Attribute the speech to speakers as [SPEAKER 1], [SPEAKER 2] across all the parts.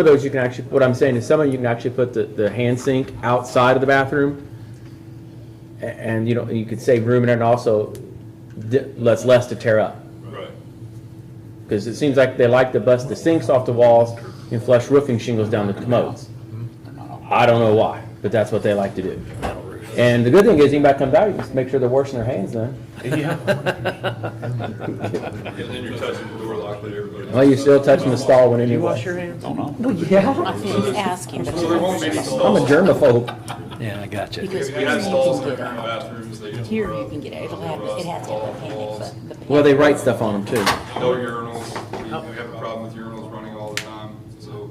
[SPEAKER 1] of those, you can actually, what I'm saying is some of you can actually put the, the hand sink outside of the bathroom. A- And, you know, you could save room in there and also di- less, less to tear up.
[SPEAKER 2] Right.
[SPEAKER 1] Because it seems like they like to bust the sinks off the walls and flush roofing shingles down the commodes. I don't know why, but that's what they like to do. And the good thing is, anybody comes out, you just make sure they're washing their hands then.
[SPEAKER 2] Yeah, then you're touching the door lock that everybody.
[SPEAKER 1] Well, you're still touching the stall when anyone.
[SPEAKER 3] hands?
[SPEAKER 1] Yeah,
[SPEAKER 4] He's asking.
[SPEAKER 2] So there won't be any
[SPEAKER 1] I'm a
[SPEAKER 2] stalls.
[SPEAKER 1] germaphobe.
[SPEAKER 5] Yeah, I got you.
[SPEAKER 4] Because
[SPEAKER 2] If you
[SPEAKER 4] here
[SPEAKER 2] have
[SPEAKER 4] you
[SPEAKER 2] stalls
[SPEAKER 4] can
[SPEAKER 2] in
[SPEAKER 4] get
[SPEAKER 2] your
[SPEAKER 4] out.
[SPEAKER 2] bathrooms, they.
[SPEAKER 4] Here you can get out. It'll have, it has to have a panic button. The
[SPEAKER 1] Well, they write stuff on them too.
[SPEAKER 2] No urinals,
[SPEAKER 4] Oh.
[SPEAKER 2] we we have a problem with urinals running all the time, so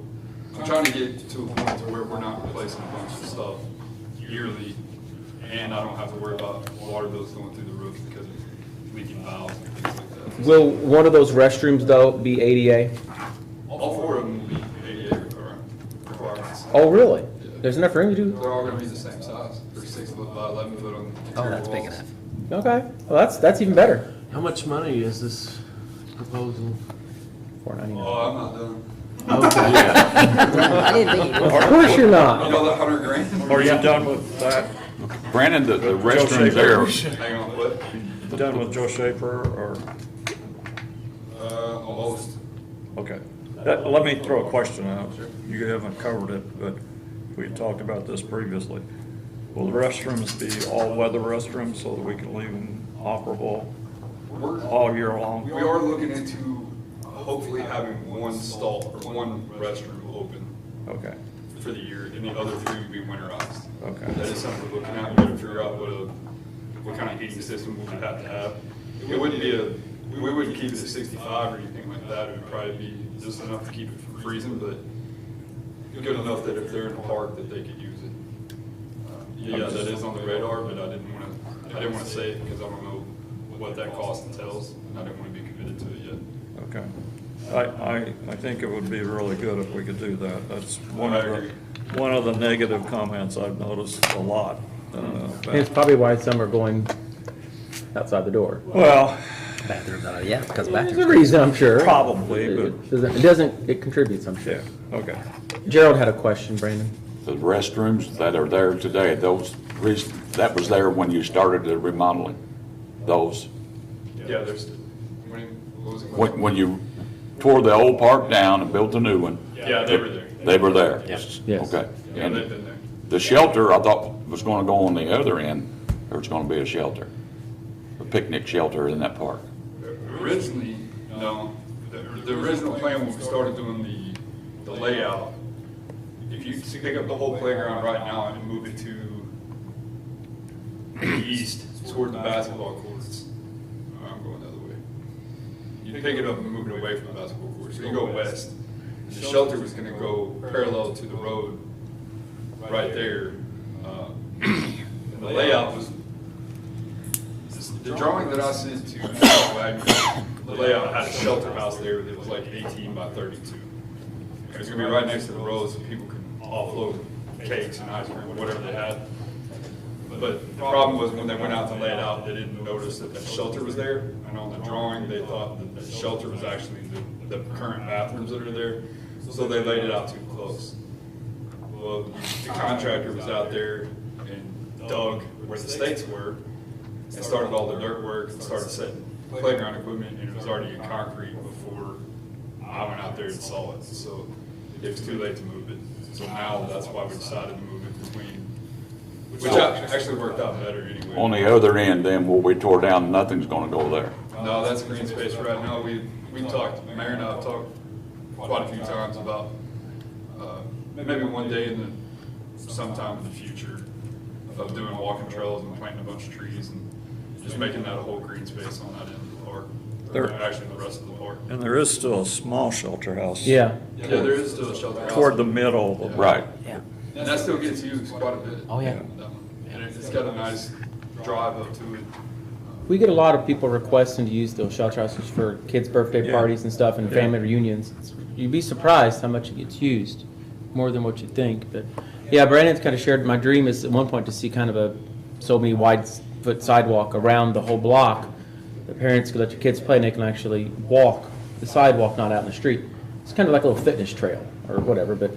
[SPEAKER 2] I'm trying to get to a point to where we're not replacing a bunch of stuff yearly, and I don't have to worry about water bills going through the roof because of leaking valves and things like that.
[SPEAKER 1] Will one of those restrooms, though, be ADA?
[SPEAKER 2] All four of them will be ADA requirement- requirements.
[SPEAKER 1] Oh, really? There's enough room to do?
[SPEAKER 2] They're all gonna be the same size, they're six foot by eleven foot on the
[SPEAKER 5] Oh,
[SPEAKER 2] interior
[SPEAKER 5] that's big
[SPEAKER 2] walls.
[SPEAKER 5] enough.
[SPEAKER 1] Okay, well, that's, that's even better.
[SPEAKER 3] How much money is this proposal?
[SPEAKER 1] Four ninety-nine.
[SPEAKER 2] Oh, I'm not done.
[SPEAKER 4] I didn't think it was.
[SPEAKER 1] Of course you're
[SPEAKER 2] You
[SPEAKER 1] not.
[SPEAKER 2] know that hundred grand?
[SPEAKER 6] Are you done with that?
[SPEAKER 7] Brandon, the, the
[SPEAKER 6] Shaver.
[SPEAKER 7] restroom's there.
[SPEAKER 2] Hang on, what?
[SPEAKER 6] Done with Joe Schaefer or,
[SPEAKER 2] Uh, almost.
[SPEAKER 6] okay. That- Let me throw a question out. You haven't covered it, but we had talked about this previously. Will the restrooms be all-weather restrooms so that we can leave them operable
[SPEAKER 2] We're-
[SPEAKER 6] all year long?
[SPEAKER 2] We are looking into hopefully having one stall or one restroom open
[SPEAKER 6] Okay,
[SPEAKER 2] for the year and the other three would be winterized. That
[SPEAKER 6] okay.
[SPEAKER 2] is something we're looking at. We're gonna figure out what a, what kind of heating system we would have to have. It wouldn't be a, we wouldn't keep it at sixty-five or anything like that. It would probably be just enough to keep it from freezing, but good enough that if they're in the park that they could use it. Uh, Yeah, that is on the radar, but I didn't wanna, I didn't wanna say it because I don't know what that cost entails and I didn't wanna be committed to it yet.
[SPEAKER 6] Okay. I, I, I think it would be really good if we could do that. That's one of
[SPEAKER 2] I agree.
[SPEAKER 6] the, one of the negative comments I've noticed a lot. uh,
[SPEAKER 1] And It's probably why some are going outside the door.
[SPEAKER 6] Well,
[SPEAKER 5] Bathrooms, uh, yeah,
[SPEAKER 1] There's
[SPEAKER 5] because
[SPEAKER 1] a
[SPEAKER 5] bathrooms.
[SPEAKER 1] reason, I'm sure.
[SPEAKER 6] Probably, but-
[SPEAKER 1] It doesn't, it doesn't- it contributes, I'm sure.
[SPEAKER 6] yeah, okay.
[SPEAKER 1] Gerald had a question, Brandon.
[SPEAKER 7] The restrooms that are there today, those, res- that was there when you started the remodeling? Those,
[SPEAKER 2] Yeah, there's, when, what was it?
[SPEAKER 7] when, when you tore the old park down and built the new one?
[SPEAKER 2] Yeah, they were there.
[SPEAKER 7] They were there?
[SPEAKER 1] Yes.
[SPEAKER 7] Okay.
[SPEAKER 2] Yeah, they've
[SPEAKER 7] And
[SPEAKER 2] been there.
[SPEAKER 7] the shelter, I thought was gonna go on the other end, there was gonna be a shelter, a picnic shelter in that park.
[SPEAKER 2] Originally, no, the, the original plan when we started doing the, the layout, if you pick up the whole playground right now and move it to the east toward the basketball courts, uh, I'm going the other way. You pick it up and move it away from the basketball courts, so you go west. The shelter was gonna go parallel to the road, right there. Uh, And the layout was the drawing that I sent to Wagner, the layout had a shelter house there that was like eighteen by thirty-two. It was gonna be right next to the road so people could offload cakes and ice cream, whatever they had. But the problem was when they went out to lay it out, they didn't notice that the shelter was there. And on the drawing, they thought that the shelter was actually the, the current bathrooms that are there. So they laid it out too close. Well, the contractor was out there and dug where the stakes were and started all the dirt work and started setting playground equipment and it was already in concrete before I went out there and saw it. So it was too late to move it. So now that's why we decided to move it between, which ac- actually worked out better anyway.
[SPEAKER 7] On the other end, then, where we tore down, nothing's gonna go there.
[SPEAKER 2] No, that's green space right now. We, we talked, Mayor and I have talked quite a few times about, uh, maybe one day in the, sometime in the future, of doing walking trails and planting a bunch of trees and just making that a whole green space on that end of the park.
[SPEAKER 6] There-
[SPEAKER 2] Or Actually, the rest of the park.
[SPEAKER 6] And there is still a small shelter house.
[SPEAKER 1] Yeah.
[SPEAKER 2] Yeah, there is still a shelter house.
[SPEAKER 6] Toward the middle. of-
[SPEAKER 7] Right.
[SPEAKER 5] Yeah.
[SPEAKER 2] And that still gets used quite a bit.
[SPEAKER 5] Oh, yeah.
[SPEAKER 2] That one. And it- it's got a nice drive up to it.
[SPEAKER 1] We get a lot of people requesting to use those shelter houses for kids' birthday
[SPEAKER 6] Yeah.
[SPEAKER 1] parties and stuff and
[SPEAKER 6] Yeah.
[SPEAKER 1] family reunions. You'd be surprised how much it gets used, more than what you think, but, yeah, Brandon's kind of shared, my dream is at one point to see kind of a so many wide s- foot sidewalk around the whole block. The parents could let your kids play and they can actually walk the sidewalk, not out in the street. It's kind of like a little fitness trail. or whatever, but